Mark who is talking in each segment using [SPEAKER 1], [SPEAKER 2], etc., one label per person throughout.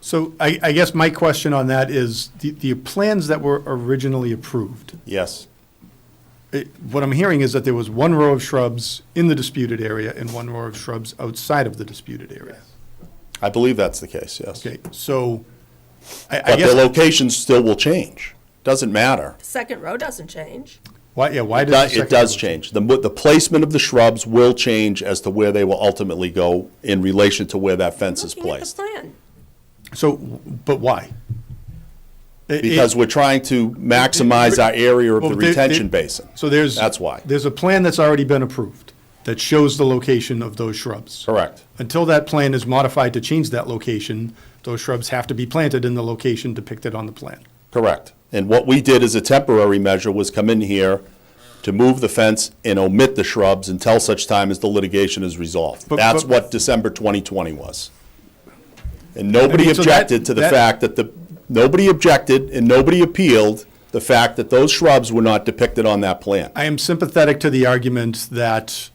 [SPEAKER 1] So I, I guess my question on that is, the, the plans that were originally approved,
[SPEAKER 2] Yes,
[SPEAKER 1] it- what I'm hearing is that there was one row of shrubs in the disputed area and one row of shrubs outside of the disputed area.
[SPEAKER 2] I believe that's the case, yes.
[SPEAKER 1] Okay, so I, I
[SPEAKER 2] But the
[SPEAKER 1] guess,
[SPEAKER 2] location still will change. Doesn't matter.
[SPEAKER 3] Second row doesn't change.
[SPEAKER 1] why, yeah, why
[SPEAKER 2] It
[SPEAKER 1] does
[SPEAKER 2] does,
[SPEAKER 1] the
[SPEAKER 2] it
[SPEAKER 1] second?
[SPEAKER 2] does change. The, mo- the placement of the shrubs will change as to where they will ultimately go in relation to where that fence is
[SPEAKER 3] Looking at the
[SPEAKER 2] placed.
[SPEAKER 3] plan.
[SPEAKER 1] So, but why? Eh, It- it-
[SPEAKER 2] Because we're trying to maximize our area of
[SPEAKER 1] Well,
[SPEAKER 2] the
[SPEAKER 1] there- there-
[SPEAKER 2] retention basin.
[SPEAKER 1] So there's.
[SPEAKER 2] That's why.
[SPEAKER 1] There's a plan that's already been approved that shows the location of those shrubs.
[SPEAKER 2] Correct.
[SPEAKER 1] Until that plan is modified to change that location, those shrubs have to be planted in the location depicted on the plan.
[SPEAKER 2] Correct. And what we did as a temporary measure was come in here to move the fence and omit the shrubs until such time as the litigation is resolved.
[SPEAKER 1] But-
[SPEAKER 2] That's
[SPEAKER 1] but-
[SPEAKER 2] what December 2020 was. And nobody
[SPEAKER 1] I mean, so that-
[SPEAKER 2] objected to the
[SPEAKER 1] that-
[SPEAKER 2] fact that the, nobody objected and nobody appealed the fact that those shrubs were not depicted on that plan.
[SPEAKER 1] I am sympathetic to the argument that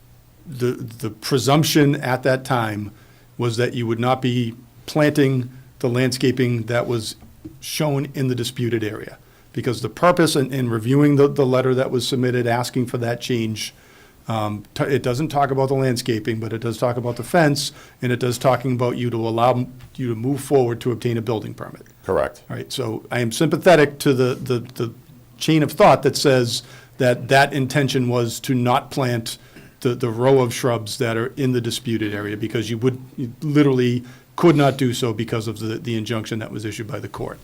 [SPEAKER 1] the, the presumption at that time was that you would not be planting the landscaping that was shown in the disputed area. Because the purpose in, in reviewing the, the letter that was submitted asking for that change, um, t- it doesn't talk about the landscaping, but it does talk about the fence, and it does talking about you to allow m- you to move forward to obtain a building permit.
[SPEAKER 2] Correct.
[SPEAKER 1] All right, so I am sympathetic to the, the, the chain of thought that says that that intention was to not plant the, the row of shrubs that are in the disputed area, because you would, you literally could not do so because of the, the injunction that was issued by the court.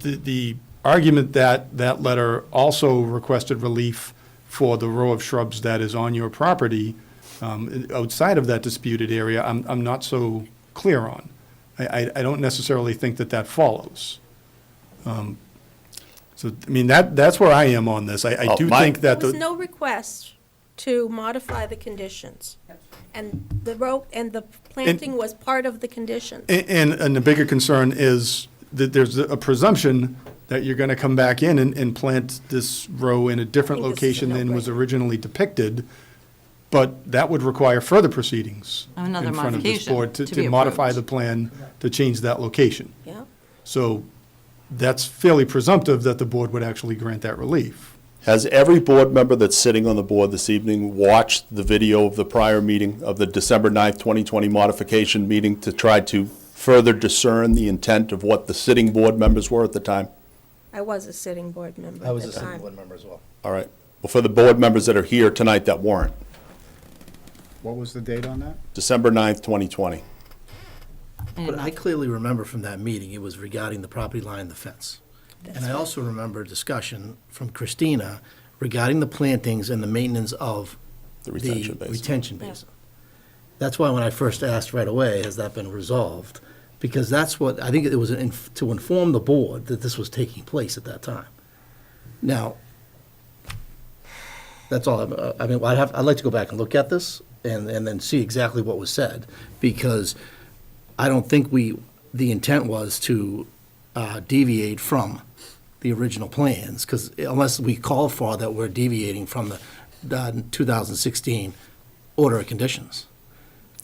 [SPEAKER 1] The, the argument that that letter also requested relief for the row of shrubs that is on your property, um, outside of that disputed area, I'm, I'm not so clear on. I, I, I don't necessarily think that that follows. Um, So, I mean, that, that's where I am on this. I, I
[SPEAKER 2] Oh,
[SPEAKER 1] do
[SPEAKER 2] my-
[SPEAKER 1] think
[SPEAKER 3] There
[SPEAKER 1] that
[SPEAKER 3] was
[SPEAKER 1] the,
[SPEAKER 3] no request to modify the conditions. And the rope, and the planting was part of the conditions.
[SPEAKER 1] a- and, and the bigger concern is that there's a presumption that you're gonna come back in and, and plant this row in a different
[SPEAKER 3] I think this is a
[SPEAKER 1] location than was
[SPEAKER 3] no-brainer.
[SPEAKER 1] originally depicted, but that would require further proceedings
[SPEAKER 4] Another
[SPEAKER 1] in front of this
[SPEAKER 4] modification
[SPEAKER 1] board to,
[SPEAKER 4] to
[SPEAKER 1] to
[SPEAKER 4] be
[SPEAKER 1] modify
[SPEAKER 4] approved.
[SPEAKER 1] the plan to change that location.
[SPEAKER 3] Yeah,
[SPEAKER 1] So that's fairly presumptive that the board would actually grant that relief.
[SPEAKER 2] Has every board member that's sitting on the board this evening watched the video of the prior meeting of the December 9th, 2020 modification meeting to try to further discern the intent of what the sitting board members were at the time?
[SPEAKER 3] I was a sitting board member
[SPEAKER 5] I
[SPEAKER 3] at
[SPEAKER 5] was
[SPEAKER 3] the
[SPEAKER 5] a city board
[SPEAKER 3] time.
[SPEAKER 5] member as well.
[SPEAKER 2] All right. Well, for the board members that are here tonight that weren't,
[SPEAKER 6] What was the date on that?
[SPEAKER 2] December 9th, 2020.
[SPEAKER 5] But I clearly remember from that meeting, it was regarding the property line, the fence. And I also remember a discussion from Christina regarding the plantings and the maintenance of
[SPEAKER 2] The retention basin.
[SPEAKER 5] retention
[SPEAKER 3] Yeah.
[SPEAKER 5] basin. That's why when I first asked right away, has that been resolved? Because that's what, I think it was in- to inform the board that this was taking place at that time. Now, That's all, I'm- uh, I mean, I'd have, I'd like to go back and look at this and, and then see exactly what was said, because I don't think we, the intent was to uh, deviate from the original plans, because unless we call for that, we're deviating from the- the 2016 order of conditions.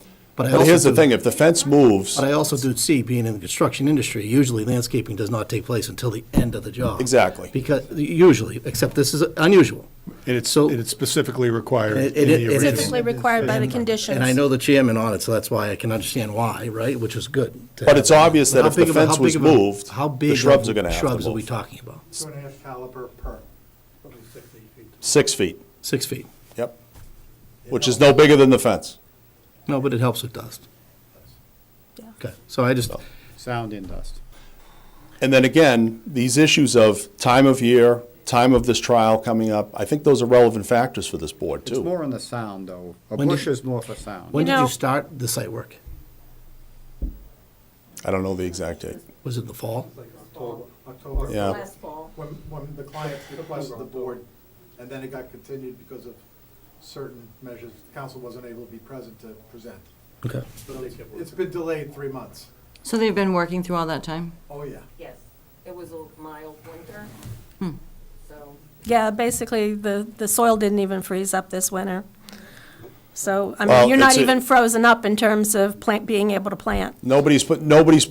[SPEAKER 5] I
[SPEAKER 2] But
[SPEAKER 5] also
[SPEAKER 2] here's the
[SPEAKER 5] do-
[SPEAKER 2] thing, if the fence moves,
[SPEAKER 5] But I also do see, being in the construction industry, usually landscaping does not take place until the end of the job.
[SPEAKER 2] Exactly.
[SPEAKER 5] Because, usually, except this is unusual.
[SPEAKER 1] And it's,
[SPEAKER 5] So-
[SPEAKER 1] and it's specifically required
[SPEAKER 5] And it-
[SPEAKER 1] in
[SPEAKER 5] and
[SPEAKER 1] the
[SPEAKER 5] it- and it's-
[SPEAKER 1] original.
[SPEAKER 3] Specifically required by the
[SPEAKER 5] And I
[SPEAKER 3] conditions.
[SPEAKER 5] know the chairman on it, so that's why I can understand why, right, which is good. to
[SPEAKER 2] But
[SPEAKER 5] have
[SPEAKER 2] it's obvious that
[SPEAKER 5] How
[SPEAKER 2] if the
[SPEAKER 5] big of a- how
[SPEAKER 2] fence
[SPEAKER 5] big
[SPEAKER 2] was
[SPEAKER 5] of a-
[SPEAKER 2] moved,
[SPEAKER 5] how
[SPEAKER 2] the
[SPEAKER 5] big
[SPEAKER 2] shrubs
[SPEAKER 5] of
[SPEAKER 2] are gonna have to
[SPEAKER 5] Shrubs are we
[SPEAKER 2] move.
[SPEAKER 5] talking about?
[SPEAKER 7] Two and a half caliber per, probably six, eight feet.
[SPEAKER 2] six feet,
[SPEAKER 5] Six feet.
[SPEAKER 2] yep, which is no bigger than the fence.
[SPEAKER 5] No, but it helps with dust.
[SPEAKER 3] Yeah.
[SPEAKER 5] Okay, so I just,
[SPEAKER 6] Sound and dust.
[SPEAKER 2] And then again, these issues of time of year, time of this trial coming up, I think those are relevant factors for this board,
[SPEAKER 6] It's
[SPEAKER 2] too.
[SPEAKER 6] more on the sound, though. A
[SPEAKER 5] When did-
[SPEAKER 6] bush is more for sound.
[SPEAKER 5] when did
[SPEAKER 3] know-
[SPEAKER 5] you start the site work?
[SPEAKER 2] I don't know the exact date.
[SPEAKER 5] Was it the fall?
[SPEAKER 7] Like October, October.
[SPEAKER 2] Yeah.
[SPEAKER 3] Last fall.
[SPEAKER 7] When, when the client requested the board, and then it got continued because of certain measures, the council wasn't able to be present to present.
[SPEAKER 5] Okay.
[SPEAKER 7] But it's- It's been delayed three months.
[SPEAKER 4] So they've been working through all that time?
[SPEAKER 7] Oh, yeah.
[SPEAKER 8] Yes, it was a mild winter, so.
[SPEAKER 3] Yeah, basically, the, the soil didn't even freeze up this winter. So, I
[SPEAKER 2] Well,
[SPEAKER 3] mean, you're not
[SPEAKER 2] it's a-
[SPEAKER 3] even frozen up in terms of plant, being able to plant.
[SPEAKER 2] Nobody's put, nobody's